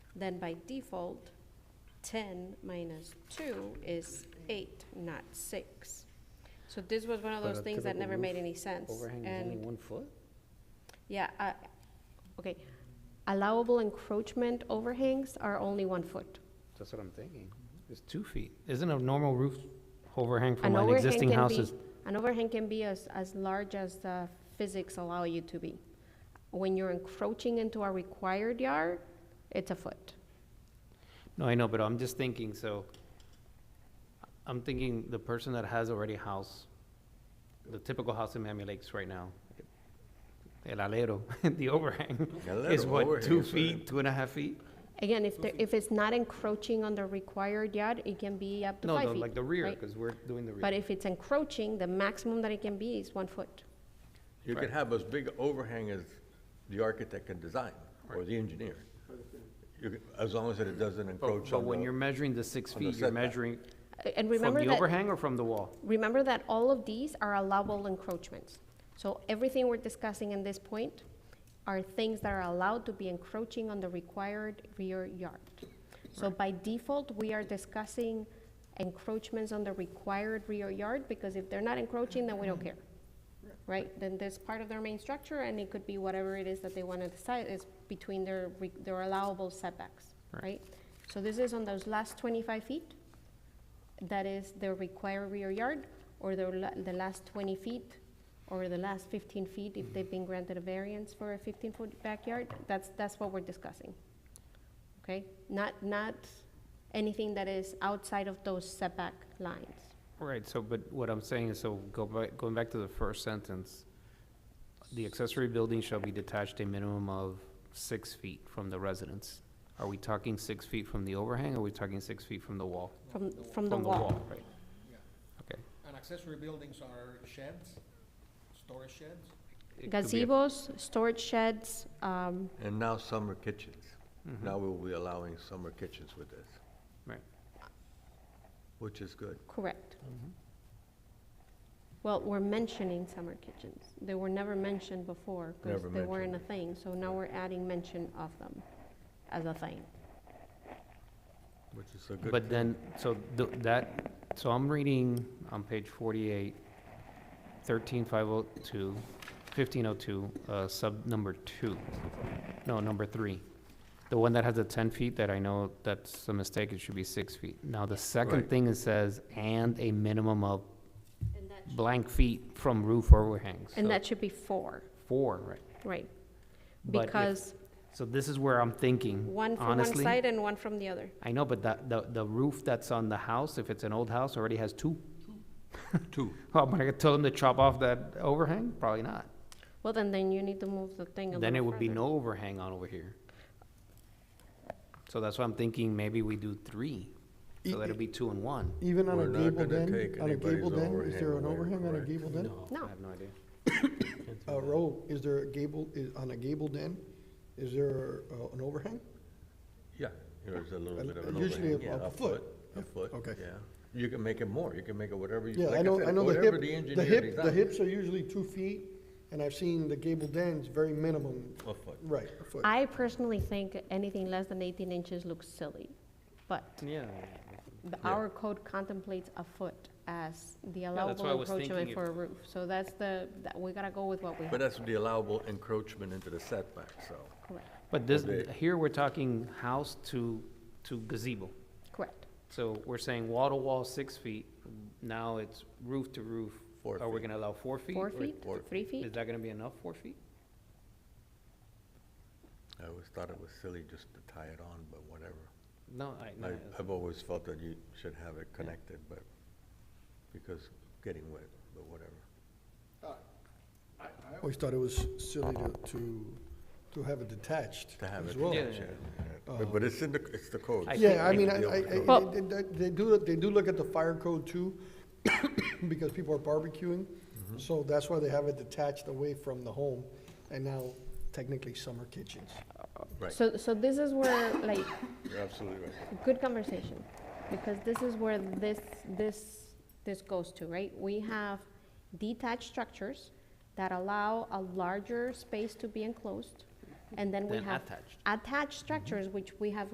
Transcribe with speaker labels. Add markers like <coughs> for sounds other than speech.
Speaker 1: Then by default, ten minus two is eight, not six. So this was one of
Speaker 2: But
Speaker 1: those
Speaker 2: a
Speaker 1: things that
Speaker 2: typical
Speaker 1: never
Speaker 2: roof
Speaker 1: made any sense.
Speaker 2: Overhang is only
Speaker 1: And,
Speaker 2: one foot?
Speaker 1: yeah, I, okay, allowable encroachment overhangs are only one foot.
Speaker 2: That's what I'm thinking.
Speaker 3: It's two feet. Isn't a normal roof overhang
Speaker 1: An
Speaker 3: from an
Speaker 1: overhang
Speaker 3: existing
Speaker 1: can
Speaker 3: house
Speaker 1: be-
Speaker 3: is?
Speaker 1: An overhang can be as, as large as the physics allow you to be. When you're encroaching into a required yard, it's a foot.
Speaker 3: No, I know, but I'm just thinking, so, I'm thinking the person that has already a house, the typical house in Miami Lakes right now, el alero, <laughs> the overhang, is
Speaker 4: alero,
Speaker 3: what,
Speaker 4: overhang
Speaker 3: two
Speaker 4: is what-
Speaker 3: feet, two and a half feet?
Speaker 1: Again, if,
Speaker 3: Mm-hmm.
Speaker 1: there- if it's not encroaching on the required yard, it can be up to
Speaker 3: No,
Speaker 1: five feet.
Speaker 3: no, like the rear,
Speaker 1: right?
Speaker 3: because we're doing the rear.
Speaker 1: But if it's encroaching, the maximum that it can be is one foot.
Speaker 4: You
Speaker 3: Right.
Speaker 4: can have as big overhang as the architect can design, or the engineer. You can- As long as it doesn't
Speaker 3: But
Speaker 4: encroach
Speaker 3: but
Speaker 4: on
Speaker 3: when you're
Speaker 4: the,
Speaker 3: measuring the six
Speaker 4: Oh, on the
Speaker 3: feet, you're
Speaker 4: setback.
Speaker 3: measuring
Speaker 1: A- And
Speaker 3: from
Speaker 1: remember
Speaker 3: the
Speaker 1: that,
Speaker 3: overhang or from the wall?
Speaker 1: remember that all of these are allowable encroachments. So everything we're discussing in this point are things that are allowed to be encroaching on the required rear yard. So by default, we are discussing encroachments on the required rear yard, because if they're not encroaching, then we don't care. Right, then that's part of their main structure, and it could be whatever it is that they wanna decide is between their, re- their allowable setbacks,
Speaker 3: Right.
Speaker 1: right? So this is on those last twenty-five feet, that is the required rear yard, or the, la- the last twenty feet, or the last fifteen feet, if they've been granted a variance for a fifteen-foot backyard, that's, that's what we're discussing. Okay, not, not anything that is outside of those setback lines.
Speaker 3: Right, so, but what I'm saying is, so go back, going back to the first sentence, the accessory building shall be detached a minimum of six feet from the residence. Are we talking six feet from the overhang, or are we talking six feet from the wall?
Speaker 1: From, from the wall.
Speaker 3: right. Okay.
Speaker 5: And accessory buildings are sheds, storage sheds?
Speaker 3: It could be a-
Speaker 1: Gazebos, storage sheds, um,
Speaker 4: and now summer kitchens.
Speaker 3: Mm-hmm.
Speaker 4: Now we'll be allowing summer kitchens with this,
Speaker 3: Right,
Speaker 4: which is good.
Speaker 1: correct.
Speaker 3: Mm-hmm.
Speaker 1: Well, we're mentioning summer kitchens. They were never mentioned before because
Speaker 4: Never
Speaker 1: they weren't a
Speaker 4: mentioned.
Speaker 1: thing, so now we're adding mention of them as a thing.
Speaker 4: Which is a good.
Speaker 3: but then, so th- that, so I'm reading on page forty-eight, thirteen five oh two, fifteen oh two, uh, sub number two, no, number three. The one that has the ten feet that I know that's a mistake, it should be six feet. Now, the second
Speaker 4: Right.
Speaker 3: thing it says, and a minimum of
Speaker 1: And that,
Speaker 3: blank feet from roof overhangs, so
Speaker 1: should be four,
Speaker 3: four, right?
Speaker 1: right?
Speaker 3: But if-
Speaker 1: Because
Speaker 3: So this is where I'm thinking,
Speaker 1: one from one
Speaker 3: honestly.
Speaker 1: side and one from the other.
Speaker 3: I know, but that, the, the roof that's on the house, if it's an old house, already has two.
Speaker 4: <laughs> Two.
Speaker 3: Oh, am I gonna tell them to chop off that overhang? Probably not.
Speaker 1: Well, then, then you need to move the thing a little
Speaker 3: Then it would be
Speaker 1: further.
Speaker 3: no overhang on over here. So that's why I'm thinking maybe we do three, so that'll be two and one.
Speaker 6: Even on
Speaker 4: We're
Speaker 6: a
Speaker 4: not
Speaker 6: gabled
Speaker 4: gonna
Speaker 6: end,
Speaker 4: take
Speaker 6: on a
Speaker 4: anybody's
Speaker 6: gabled end, is there an
Speaker 4: overhang away,
Speaker 6: overhang on a
Speaker 4: correct.
Speaker 6: gabled end?
Speaker 3: No,
Speaker 1: No.
Speaker 3: I have no idea.
Speaker 6: A row, is there a gable, is, on a gabled end, is there uh, an overhang?
Speaker 4: Yeah, there's a little
Speaker 6: Uh,
Speaker 4: bit of an overhang.
Speaker 6: usually a-
Speaker 4: Yeah,
Speaker 6: a foot.
Speaker 4: A foot,
Speaker 6: okay.
Speaker 4: yeah. You can make it more, you can make it whatever you,
Speaker 6: Yeah,
Speaker 4: like
Speaker 6: I
Speaker 4: I
Speaker 6: know, I
Speaker 4: said,
Speaker 6: know the
Speaker 4: whatever
Speaker 6: hip,
Speaker 4: the engineer
Speaker 6: the hip, the
Speaker 4: designs.
Speaker 6: hips are usually two feet, and I've seen the gabled ends very minimum,
Speaker 4: A foot.
Speaker 6: right, a foot.
Speaker 1: I personally think anything less than 18 inches looks silly, but
Speaker 3: Yeah.
Speaker 1: the- our code contemplates a foot as the
Speaker 3: that's why I
Speaker 1: allowable
Speaker 3: was thinking
Speaker 1: encroachment
Speaker 3: if-
Speaker 1: for a roof. So that's the, that- we gotta go with what we
Speaker 4: But
Speaker 1: have,
Speaker 4: that's the allowable encroachment into the setback, so.
Speaker 1: correct,
Speaker 3: But this,
Speaker 4: Okay.
Speaker 3: here we're talking house to, to gazebo.
Speaker 1: correct.
Speaker 3: So we're saying wall to wall, six feet. Now it's roof to roof.
Speaker 4: Four
Speaker 3: Are we
Speaker 4: feet.
Speaker 3: gonna allow four feet?
Speaker 1: Four
Speaker 3: Or-
Speaker 1: feet,
Speaker 4: or-
Speaker 1: three
Speaker 3: Is
Speaker 1: feet?
Speaker 3: that gonna be enough, four feet?
Speaker 4: I always thought it was silly just to tie it on, but whatever.
Speaker 3: No, I, no,
Speaker 4: I,
Speaker 3: it's-
Speaker 4: I've always felt that you should have it connected, but, because getting wet, but whatever.
Speaker 6: I always thought it was silly to, to, to have it detached
Speaker 4: To have
Speaker 6: as
Speaker 4: it,
Speaker 6: well.
Speaker 3: Yeah.
Speaker 4: yeah, yeah. But- but it's in the, it's the code.
Speaker 3: I
Speaker 6: Yeah, I
Speaker 3: think
Speaker 6: mean,
Speaker 4: we-
Speaker 6: I, I, I-
Speaker 1: Well-
Speaker 6: they, they- they do, they do look at the fire code too, <coughs> because people are barbecuing. So that's why they have it detached away from the home, and now technically summer kitchens.
Speaker 4: Right,
Speaker 1: So, so this is where, like,
Speaker 4: you're absolutely right.
Speaker 1: good conversation, because this is where this, this, this goes to, right? We have detached structures that allow a larger space to be enclosed, and then we
Speaker 3: Then
Speaker 1: have
Speaker 3: attached.
Speaker 1: attached structures, which we have